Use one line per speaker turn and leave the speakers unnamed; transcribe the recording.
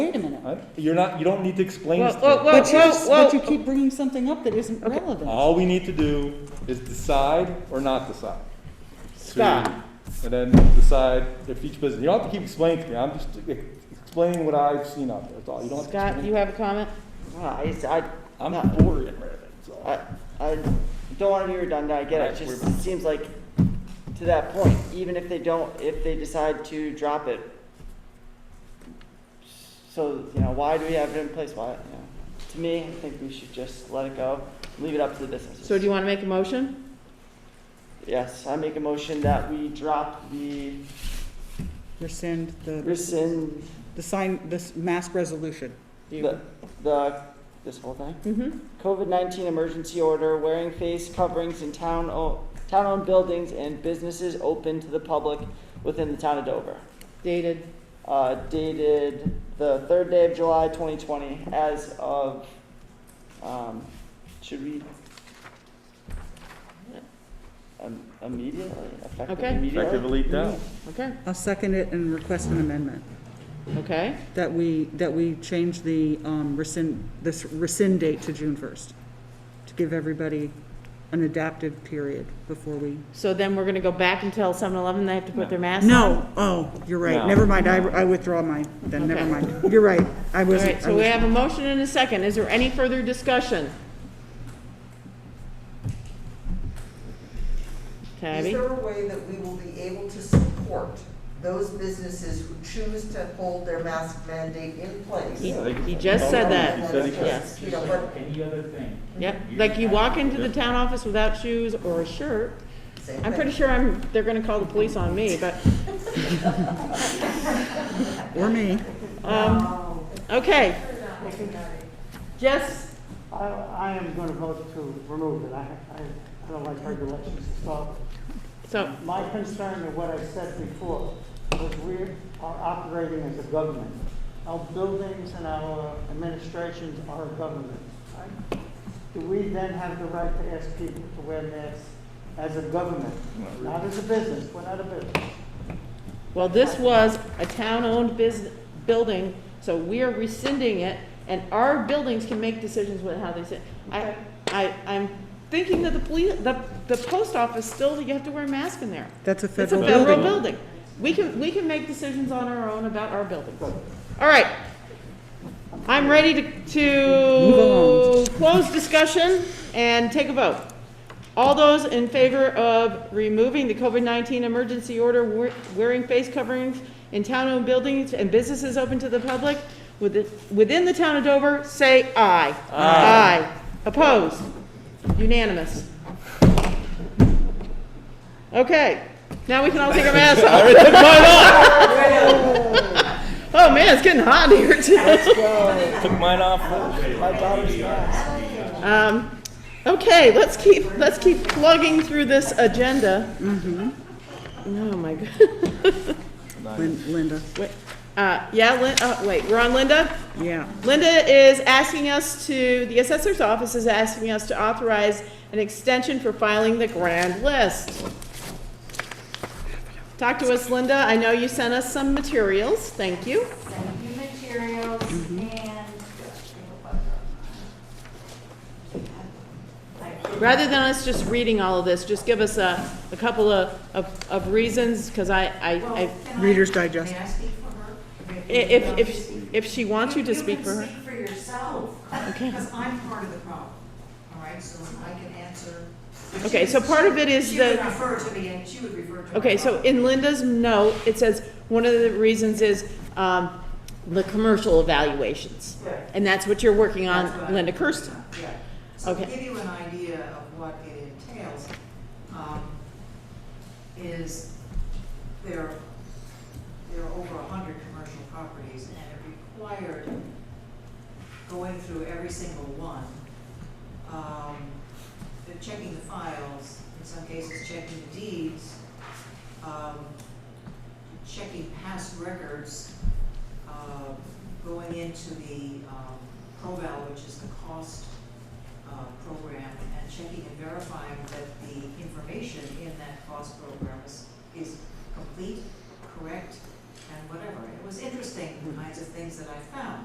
I- You're not, you don't need to explain this
Whoa,
to
whoa,
me.
whoa.
But you, but you
whoa.
keep bringing something up that isn't
Okay.
relevant.
All we need to do is decide or not decide.
Stop.
To- And then decide if each business, you don't have to keep explaining to me, I'm just e- explaining what I've seen out there, that's all, you don't have to.
Scott,
explain.
you have a comment?
I, I,
I'm
no.
bored right now, that's all.
I, I don't want to be redundant, I get it, It just it seems like, to that point, even if they don't, if they decide to drop it, so, you know, why do we have it in place, why, you know, to me, I think we should just let it go, leave it up to the businesses.
So do you want to make a motion?
Yes, I make a motion that we drop the,
Rescind the,
rescind
the sign, this mask resolution.
the, the, this whole thing.
Mm-hmm.
COVID-19 emergency order, wearing face coverings in town, o- town-owned buildings and businesses open to the public within the town of Dover.
Dated,
Uh, dated the third day of July 2020 as of, um, should we? Um, Immediately, effective
Okay.
immediately?
Effectively, no.
okay,
I'll second it and request an amendment,
okay.
that we, that we change the um, rescind, this rescind date to June 1st, to give everybody an adaptive period before we.
So then we're going to go back and tell 7-Eleven they have to put their masks on?
No, oh, you're right,
No.
never mind, I, I withdraw mine, then, never
Okay.
mind. You're right, I
All
was.
right, so we have a motion and a second. Is there any further discussion?
Is
Tabby?
there a way that we will be able to support those businesses who choose to hold their mask mandate in place?
He
You
he just said
He
that.
said he could.
Yes.
know, but
Any other thing?
Yep, like you walk into the town office without shoes or a shirt.
same
I'm
thing.
pretty sure I'm, they're gonna call the police on me, but,
Or me.
um, okay. Jess,
I, I am going to vote to remove it. I, I- I don't like regulations at all.
so,
My concern of what I said before was we are operating as a government. Our buildings and our administrations are a government. right? Do we then have the right to ask people to wear masks as a government? Not as a business, we're not a business.
well, this was a town-owned business, building, so we are rescinding it, and our buildings can make decisions with how they sit. I, I, I'm thinking that the police, the, the post office still, you have to wear a mask in there.
That's a
It's a
federal
federal
building.
building. We can, we can make decisions on our own about our buildings. All right. I'm ready to, to
Move
close discussion and take a vote. All those in favor of removing the COVID-19 emergency order wear- wearing face coverings in town-owned buildings and businesses open to the public within, within the town of Dover, say aye. Aye. Opposed? Unanimous. Okay, now we can all take our masks off. Oh man, it's getting hot in here too.
Took mine off.
Um, okay, let's keep, let's keep plugging through this agenda. Mm-hmm. Oh my god.
Lin- Linda,
Wait, uh, yeah, Lin, uh, wait, we're on Linda?
yeah.
Linda is asking us to, the assessor's office is asking us to authorize an extension for filing the grand list. Talk to us, Linda. I know you sent us some materials. Thank you.
send you materials and.
Rather than us just reading all of this, just give us a, a couple of, of, of reasons, because I, I, I,
Reader's Digest.
May I speak for her?
i- if, if, if she wants you to
You-
speak for her.
You can speak for yourself,
Okay.
because I'm part of the problem, all right, so I can answer.
Okay, so part of it is
She would
the-
refer to me, and she would refer to. my
Okay, so
problem.
in Linda's note, it says, one of the reasons is, um, the commercial evaluations.
Right.
And that's what you're working
That's
on,
what-
Linda Kirsten.
Yeah. So to
Okay.
give you an idea of what it entails, um, is there, there are over a hundred commercial properties and it required going through every single one. Um, they're checking the files, in some cases checking the deeds, um, checking past records, uh, going into the, um, ProVal, which is the cost, uh, program, and checking and verifying that the information in that cost program is, is complete, correct, and whatever. It was interesting, the kinds of things that I found.